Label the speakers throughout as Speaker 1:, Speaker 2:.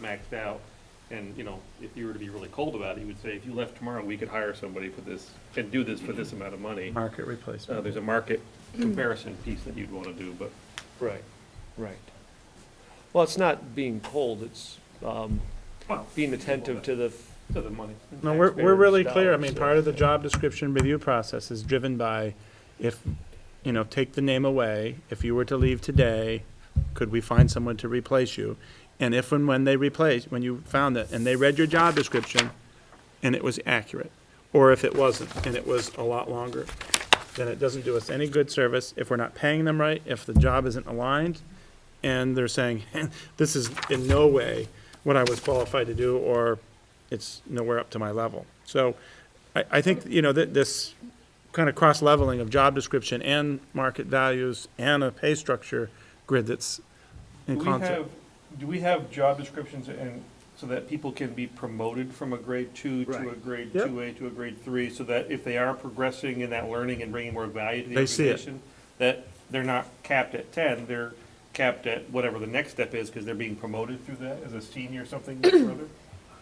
Speaker 1: maxed out. And, you know, if you were to be really cold about it, you would say, if you left tomorrow, we could hire somebody for this and do this for this amount of money.
Speaker 2: Market
Speaker 1: Uh,
Speaker 2: replacement.
Speaker 1: there's a market comparison piece that you'd wanna do, but
Speaker 3: Right, right. Well, it's not being cold, it's um,
Speaker 1: Well,
Speaker 3: being attentive to the,
Speaker 1: to the money.
Speaker 2: No, we're, we're really
Speaker 3: Taxpayers'
Speaker 2: clear. I mean,
Speaker 3: dollars,
Speaker 2: part of the job description review process is driven by if, you know, take the name away, if you were to leave today, could we find someone to replace you? And if and when they replace, when you found it, and they read your job description and it was accurate, or if it wasn't and it was a lot longer, then it doesn't do us any good service if we're not paying them right, if the job isn't aligned, and they're saying, this is in no way what I was qualified to do, or it's nowhere up to my level. So I, I think, you know, that this kind of cross-leveling of job description and market values and a pay structure grid that's in
Speaker 1: Do we have,
Speaker 2: concert.
Speaker 1: do we have job descriptions and, so that people can be promoted from a grade two to a
Speaker 3: Right.
Speaker 1: grade
Speaker 2: Yep.
Speaker 1: two A to a grade three? So that if they are progressing in that learning and bringing more value to the
Speaker 2: They see it.
Speaker 1: organization, that they're not capped at ten, they're capped at whatever the next step is, because they're being promoted through that as a senior or something or other?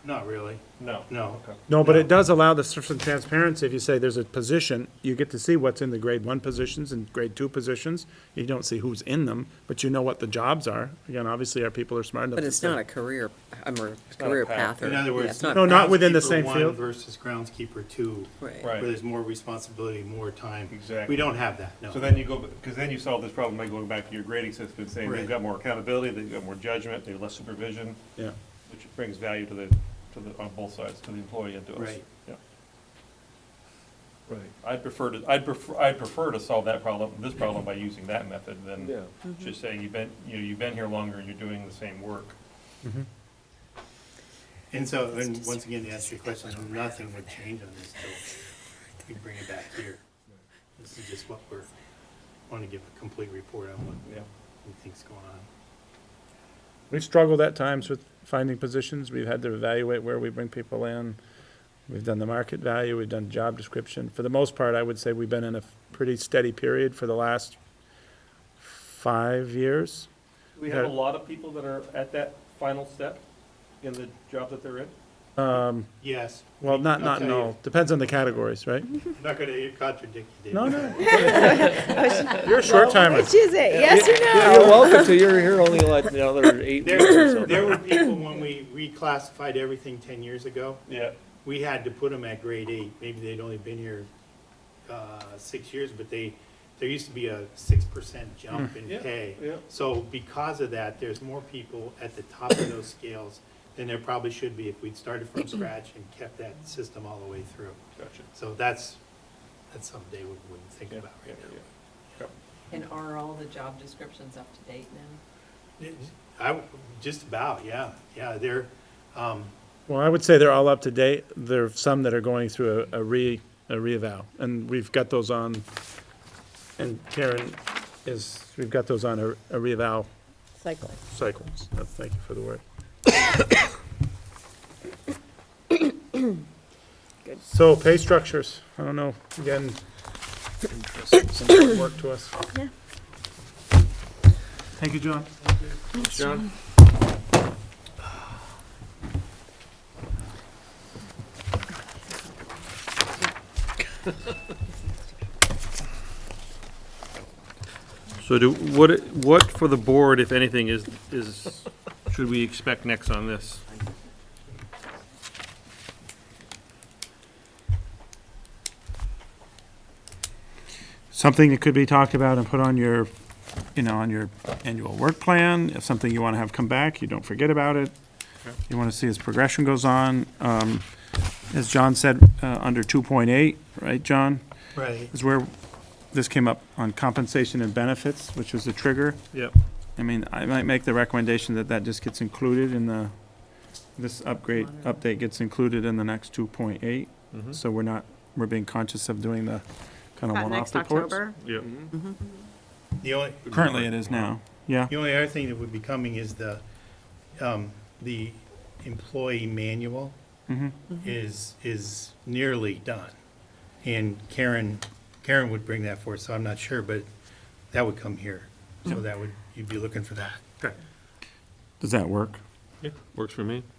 Speaker 4: Not really,
Speaker 1: No.
Speaker 4: no.
Speaker 2: No, but it does allow the sort of transparency. If you say there's a position, you get to see what's in the grade one positions and grade two positions. You don't see who's in them, but you know what the jobs are. Again, obviously, our people are smart enough to
Speaker 5: But it's
Speaker 2: say-
Speaker 5: not a career, I'm a career
Speaker 1: path.
Speaker 5: path. or-
Speaker 4: In other
Speaker 5: yeah,
Speaker 4: words.
Speaker 5: it's not-
Speaker 2: No, not within the same
Speaker 4: groundskeeper one
Speaker 2: field.
Speaker 4: Versus groundskeeper two,
Speaker 5: right.
Speaker 1: Right.
Speaker 4: where there's more responsibility, more time.
Speaker 1: Exactly.
Speaker 4: We don't have that, no.
Speaker 1: So then you go, because then you solve this problem by going back to your grading system and saying, they've
Speaker 4: Right.
Speaker 1: got more accountability, they've got more judgment, they have less supervision,
Speaker 2: Yeah.
Speaker 1: which brings value to the, to the, on both sides, to the employee and to us.
Speaker 4: Right.
Speaker 1: Yeah. I'd prefer to, I'd prefer, I'd prefer to solve that problem, this problem by using that method
Speaker 3: Yeah.
Speaker 1: than just saying you've been, you know, you've been here longer and you're doing the same work.
Speaker 4: And so, and once again, to answer your question, nothing would change on this till we bring it back here. This is just what we're, want to give a complete report on what
Speaker 1: Yeah.
Speaker 4: we think's going on.
Speaker 2: We've struggled at times with finding positions. We've had to evaluate where we bring people in. We've done the market value, we've done job description. For the most part, I would say we've been in a pretty steady period for the last five years.
Speaker 1: We have a
Speaker 2: Yeah.
Speaker 1: lot of people that are at that final step in the job that they're in.
Speaker 4: Yes,
Speaker 2: Well, not, not,
Speaker 4: Okay.
Speaker 2: no, depends on the categories, right?
Speaker 4: I'm not going to contradict you, David.
Speaker 2: No, no. You're a short timer.
Speaker 6: Which is it, yes or no?
Speaker 3: you're welcome to, you're here only like another eight weeks or
Speaker 4: There, there
Speaker 3: something.
Speaker 4: were people, when we reclassified everything ten years ago,
Speaker 1: Yeah.
Speaker 4: we had to put them at grade eight. Maybe they'd only been here, uh, six years, but they, there used to be a six percent jump in
Speaker 1: Yeah,
Speaker 4: pay.
Speaker 1: yeah.
Speaker 4: So because of that, there's more people at the top of those scales than there probably should be if we'd started from scratch and kept that system all the way through.
Speaker 1: Gotcha.
Speaker 4: So that's, that's something they would- wouldn't think
Speaker 1: Yeah,
Speaker 4: about
Speaker 1: yeah,
Speaker 4: right now.
Speaker 1: yeah.
Speaker 7: And are all the job descriptions up to date now?
Speaker 4: I, just about, yeah, yeah, they're, um,
Speaker 2: Well, I would say they're all up to date. There are some that are going through a, a re, a reeval, and we've got those on, and Karen is, we've got those on a, a reeval
Speaker 6: Cycle.
Speaker 2: cycles. Uh, Thank you for the word. So pay structures, I don't know, again, some work to us.
Speaker 6: Yeah.
Speaker 2: Thank you, John.
Speaker 3: John?
Speaker 1: So do, what, what for the board, if anything, is, is, should we expect next on this?
Speaker 2: something that could be talked about and put on your, you know, on your annual work plan, if something you want to have come back, you don't forget about it. You want to see as progression goes on. Um, As John said, uh, under 2.8, right, John,
Speaker 4: Right.
Speaker 2: is where this came up on compensation and benefits, which was the trigger.
Speaker 1: Yep.
Speaker 2: I mean, I might make the recommendation that that just gets included in the, this upgrade, update gets included in the next 2.8. So we're not, we're being conscious of doing the kind of one-off
Speaker 6: Next
Speaker 2: reports.
Speaker 6: October.
Speaker 1: Yep.
Speaker 4: The only.
Speaker 2: Currently it is now, Uh-huh. yeah.
Speaker 4: The only other thing that would be coming is the, um, the employee manual is, is nearly done. And Karen, Karen would bring that forward, so I'm not sure, but that would come here. So that would, you'd be looking for that.
Speaker 2: Does that work?
Speaker 1: Works for me.